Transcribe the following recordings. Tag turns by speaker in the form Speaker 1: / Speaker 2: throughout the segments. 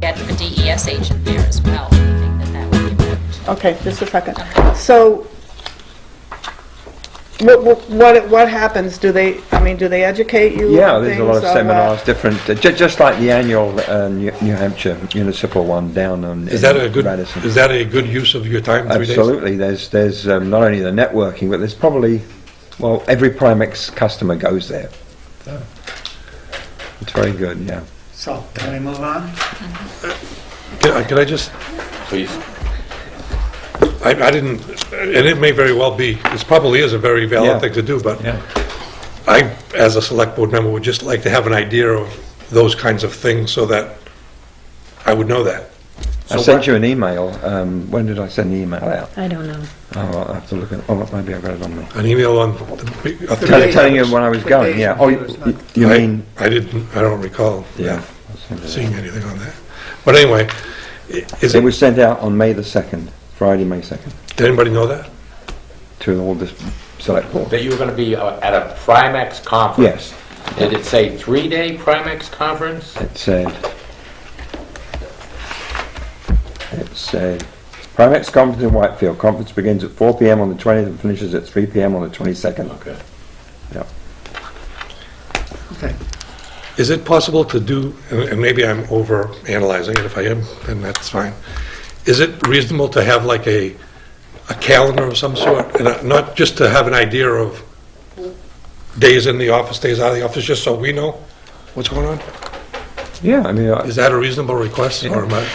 Speaker 1: get the DES E agent there as well. We think that that would be important.
Speaker 2: Okay, just a second.
Speaker 1: Okay.
Speaker 2: So what, what- what, what happens? Do they, I mean, do they educate you?
Speaker 3: Yeah,
Speaker 2: on
Speaker 3: there's a lot of
Speaker 2: things, uh,
Speaker 3: seminars, different, uh, ju- just like the annual uh, New New Hampshire municipal one down on.
Speaker 4: Is
Speaker 3: in
Speaker 4: that a good,
Speaker 3: Radisson.
Speaker 4: is that a good use of your time, three days?
Speaker 3: Absolutely. There's there's um, not only the networking, but there's probably well every Primex customer goes there. So it's very good. Yeah.
Speaker 5: So, can we move on?
Speaker 4: Can I- can I just? Please. I I didn't, and it may very well be, this probably is a very
Speaker 3: Yeah.
Speaker 4: valid thing to do, but
Speaker 3: Yeah.
Speaker 4: I, as a select board member, would just like to have an idea of those kinds of things so that I would know that.
Speaker 3: I sent you an email. Um, when did I send the email out?
Speaker 6: I don't know.
Speaker 3: Oh, I'll have to look at. Oh, maybe I got it on me.
Speaker 4: An email on. the- a
Speaker 3: Tell,
Speaker 4: three-day
Speaker 3: telling you
Speaker 4: notice.
Speaker 3: when I was going. Yeah. Oh, you, you
Speaker 4: I-
Speaker 3: mean?
Speaker 4: I didn't, I don't recall.
Speaker 3: Yeah.
Speaker 4: Seeing anything on that. But anyway, i- is
Speaker 3: It
Speaker 4: it,
Speaker 3: was sent out on May the second, Friday, May second,
Speaker 4: did anybody know that?
Speaker 3: to all the select board.
Speaker 7: That you were going to be uh, at a Primex conference?
Speaker 3: Yes,
Speaker 7: Yes. Did it say three-day Primex conference?
Speaker 3: it said. It said. Primex conference in Whitefield. Conference begins at 4 p.m. on the 20th and finishes at 3 p.m. on the 22nd.
Speaker 7: Okay.
Speaker 5: Okay.
Speaker 4: Is it possible to do, and and maybe I'm over analyzing it, if I am, then that's fine. Is it reasonable to have like a, a calendar of some sort? And uh, not just to have an idea of days in the office, days out of the office, just so we know what's going on?
Speaker 3: Yeah, I mean, I,
Speaker 4: Is that a reasonable request or am I,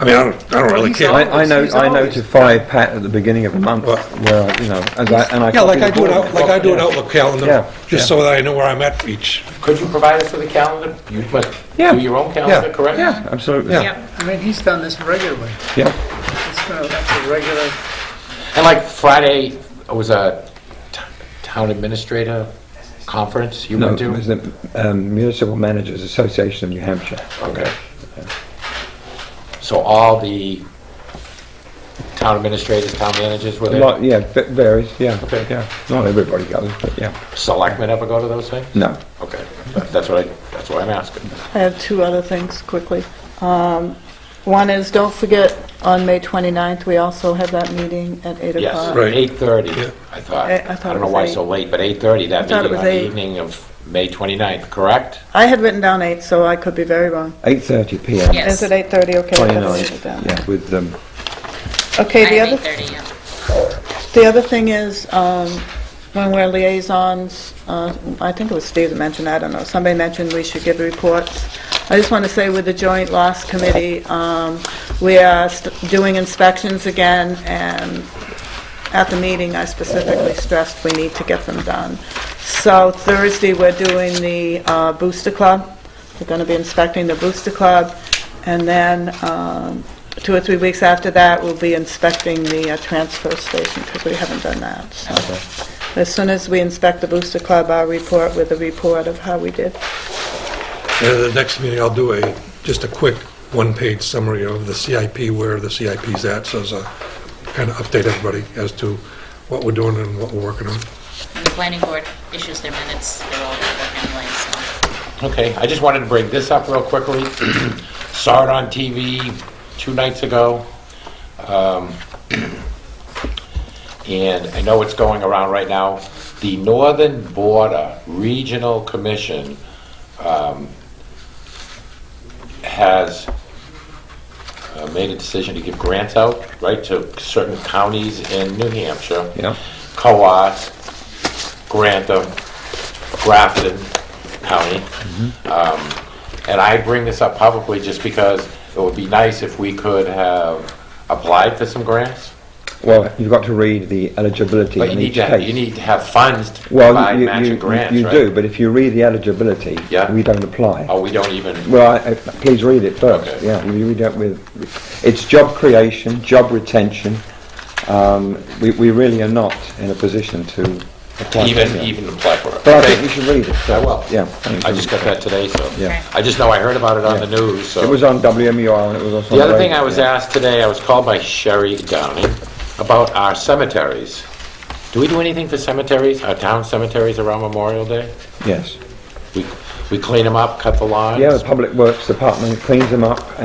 Speaker 4: I mean, I don't, I don't really care.
Speaker 3: I, I know,
Speaker 5: He's
Speaker 3: I
Speaker 5: always-
Speaker 3: notify Pat at the beginning of the month
Speaker 4: Well-
Speaker 3: where, you know, as I, and I.
Speaker 4: Yeah, like
Speaker 3: copy
Speaker 4: I
Speaker 3: the
Speaker 4: do
Speaker 3: board.
Speaker 4: an out, like I do an Outlook
Speaker 3: Yeah,
Speaker 4: calendar,
Speaker 3: yeah.
Speaker 4: just so that I know where I'm at for each.
Speaker 7: Could you provide us with a calendar? You must
Speaker 3: Yeah.
Speaker 7: do your own calendar,
Speaker 3: Yeah,
Speaker 7: correct?
Speaker 3: yeah, absolutely.
Speaker 4: Yeah.
Speaker 5: I mean, he's done this regularly.
Speaker 3: Yeah,
Speaker 5: It's been a that's a regular,
Speaker 7: And like Friday was a t- town administrator conference you
Speaker 3: no,
Speaker 7: went
Speaker 3: it
Speaker 7: to?
Speaker 3: was the um, Municipal Managers Association of New Hampshire.
Speaker 7: Okay. So all the town administrators, town managers were
Speaker 3: A
Speaker 7: there?
Speaker 3: lot, yeah, va- varies, yeah,
Speaker 7: Okay.
Speaker 3: yeah. Not everybody goes, but yeah.
Speaker 7: Selectmen ever go to those things?
Speaker 3: No,
Speaker 7: Okay, That- that's what I, that's what I'm asking.
Speaker 2: I have two other things quickly. Um, One is, don't forget, on May 29th, we also have that meeting at 8 o'clock.
Speaker 7: Yes,
Speaker 4: Right.
Speaker 7: eight thirty,
Speaker 4: Yeah.
Speaker 7: I thought.
Speaker 2: I- I thought
Speaker 7: don't
Speaker 2: it
Speaker 7: know
Speaker 2: was
Speaker 7: why
Speaker 2: eight.
Speaker 7: so late, but eight thirty,
Speaker 2: I
Speaker 7: that
Speaker 2: thought it
Speaker 7: meeting on
Speaker 2: was
Speaker 7: the
Speaker 2: eight.
Speaker 7: evening of May 29th, correct?
Speaker 2: I had written down 8, so I could be very wrong.
Speaker 3: 8:30 PM.
Speaker 1: Yes.
Speaker 2: Is it 8:30? Okay. I gotta
Speaker 3: 29,
Speaker 2: write it down.
Speaker 3: yeah, with, um,
Speaker 2: Okay, the other,
Speaker 1: 9:30, yeah.
Speaker 2: the other thing is, um, when we're liaisons, uh, I think it was Steve that mentioned, I don't know, somebody mentioned we should give reports. I just want to say with the Joint Loss Committee, um, we are st- doing inspections again, and at the meeting, I specifically stressed we need to get them done. So Thursday, we're doing the uh, Booster Club. We're going to be inspecting the Booster Club, and then um, two or three weeks after that, we'll be inspecting the uh, transfer station, because we haven't done that. So As soon as we inspect the Booster Club, I'll report with a report of how we did.
Speaker 4: And at the next meeting, I'll do a, just a quick one-page summary of the CIP, where the CIP's at, so as a, kind of update everybody as to what we're doing and what we're working on.
Speaker 1: And The planning board issues their minutes, they're all at work anyway, so.
Speaker 7: Okay, I just wanted to bring this up real quickly. Saw it on TV two nights ago. Um, And I know it's going around right now. The Northern Border Regional Commission um, has uh, made a decision to give grants out, right, to certain counties in New Hampshire.
Speaker 3: Yeah.
Speaker 7: Coas, Grantham, Grafton County. Um, And I bring this up publicly just because it would be nice if we could have applied for some grants.
Speaker 3: well, you've got to read the eligibility
Speaker 7: But you
Speaker 3: in each
Speaker 7: need to,
Speaker 3: case.
Speaker 7: you need to have funds to
Speaker 3: Well,
Speaker 7: provide
Speaker 3: you- you,
Speaker 7: matching grants,
Speaker 3: you, you
Speaker 7: right?
Speaker 3: do, but if you read the eligibility,
Speaker 7: Yeah.
Speaker 3: we don't apply.
Speaker 7: Oh, we don't even,
Speaker 3: Well, I- I- please read it first,
Speaker 7: Okay.
Speaker 3: yeah, we read it with, it's job creation, job retention. Um, We we really are not in a position to apply. for
Speaker 7: even,
Speaker 3: it.
Speaker 7: even apply for it.
Speaker 3: But I think we should read it.
Speaker 7: I
Speaker 3: first.
Speaker 7: will.
Speaker 3: Yeah.
Speaker 7: I just got that today, so.
Speaker 3: Yeah.
Speaker 7: I just know I heard about it on the news, so.
Speaker 3: It was on WMUR and it was also on
Speaker 7: The other
Speaker 3: radio,
Speaker 7: thing I was
Speaker 3: yeah.
Speaker 7: asked today, I was called by Sherry Downing about our cemeteries. Do we do anything for cemeteries, our town cemeteries around Memorial Day?
Speaker 3: Yes.
Speaker 7: We, we clean them up, cut the lawns?
Speaker 3: Yeah, the Public Works Department cleans them up